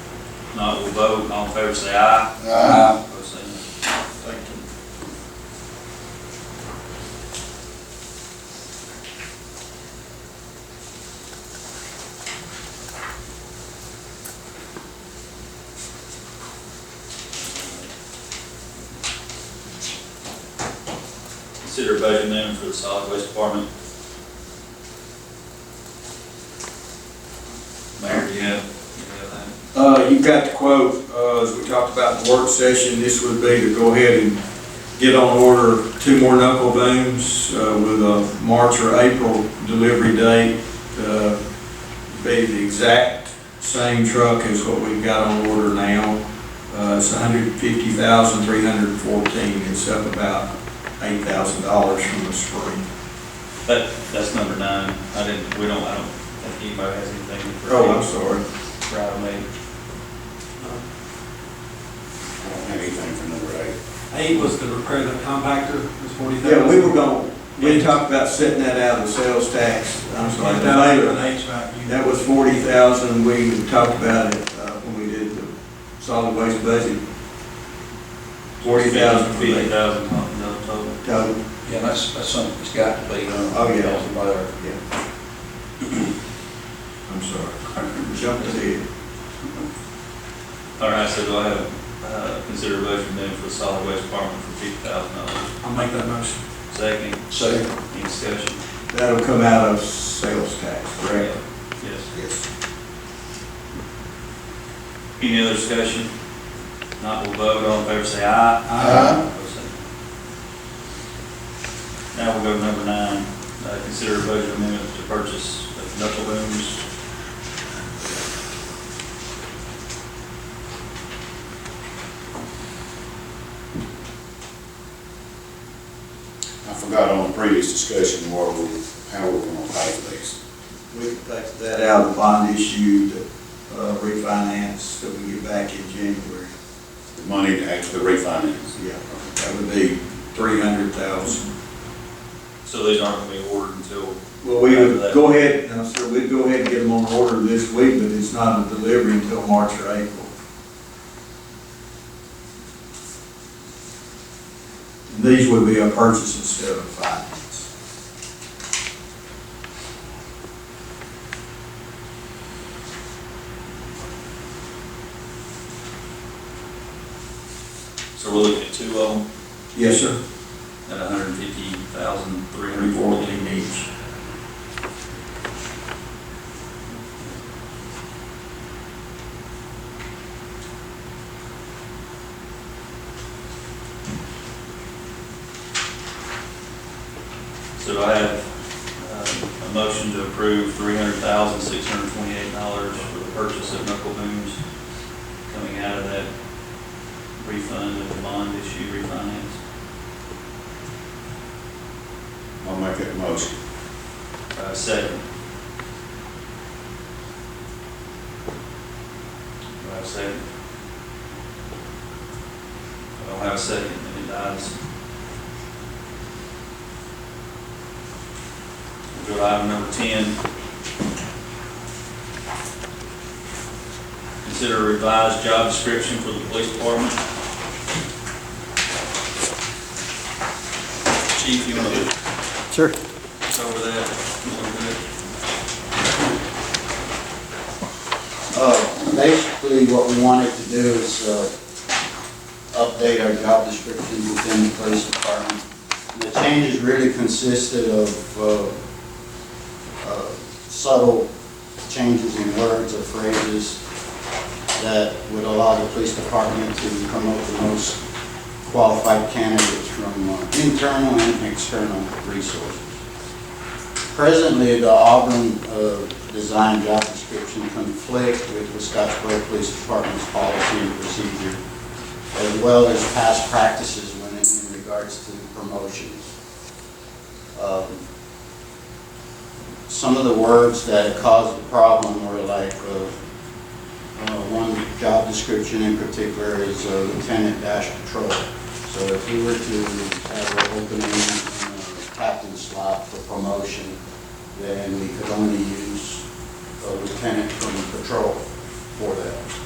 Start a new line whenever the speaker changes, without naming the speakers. If not, we'll vote, all in favor, say aye.
Aye.
Opposed, say no.
Thank you.
Consider budget amendment for the solid waste department. Mayor, do you have, you have that?
Uh, you've got the quote, uh, as we talked about in the work session, this would be to go ahead and get on order two more knuckle booms, uh, with a March or April delivery date. Uh, Be the exact same truck as what we've got on order now. Uh, it's hundred fifty thousand, three hundred and fourteen, it's up about eight thousand dollars from the spring.
That, that's number nine. I didn't, we don't, I don't think anybody has anything for.
Oh, I'm sorry.
For item eight.
I don't have anything for number eight.
Eight was to repair the compactor, it was forty thousand.
Yeah, we were gonna, we talked about setting that out of the sales tax, I'm sorry, the labor. That was forty thousand, we talked about it, uh, when we did the solid waste budget. Forty thousand for
Fifty
the
thousand, no total.
total.
Yeah, that's, that's something that's got to be done.
Oh, yeah.
It's about-
I'm sorry. Jumped ahead.
All right, so do I have, uh, consider budget amendment for the solid waste department for fifty thousand dollars?
I'll make that motion.
Second,
So,
any discussion?
That'll come out of sales tax, correct?
Yes.
Yes.
Any other discussion? Not will vote, all in favor say aye.
Aye.
Opposed, say no. Now we'll go to number nine, uh, consider budget amendment to purchase of knuckle booms.
I forgot on the previous discussion where we, how we're gonna pay for these.
We can take that out of the bond issue, to uh, refinance, that we get back in January.
The money to actually refinance.
Yeah. That would be three hundred thousand.
So these aren't gonna be ordered until
Well, we would go ahead, no, sir, we'd go ahead and get them on order this week, but it's not a delivery until March or April. And These would be a purchase instead of a finance.
So we're looking at two of them
Yes, sir.
at a hundred and fifty thousand, three hundred
Three,
and
four,
forty.
eight each.
So do I have uh, a motion to approve three hundred thousand, six hundred and twenty-eight dollars for the purchase of knuckle booms coming out of that refund of the bond issue refinance.
I'll make that motion.
Uh, Second. Do I have a second? I don't have a second, then it dies. We'll go to item number ten. Consider revised job description for the police department. Chief, you want to
Sure.
go over that a little bit?
Uh, Basically, what we wanted to do is uh, update our job description within the police department. And The changes really consisted of uh, uh, subtle changes in words or phrases that would allow the police department to promote the most qualified candidates from uh, internal and external resources. Presently, the Auburn uh, design job description conflict with the Scottsboro Police Department's policy and procedure, as well as past practices when it- in regards to promotions. Um, Some of the words that caused the problem were like, uh, uh, one job description in particular is uh, lieutenant dash patrol. So if we were to have an opening uh, captain slot for promotion, then we could only use a lieutenant from patrol for that.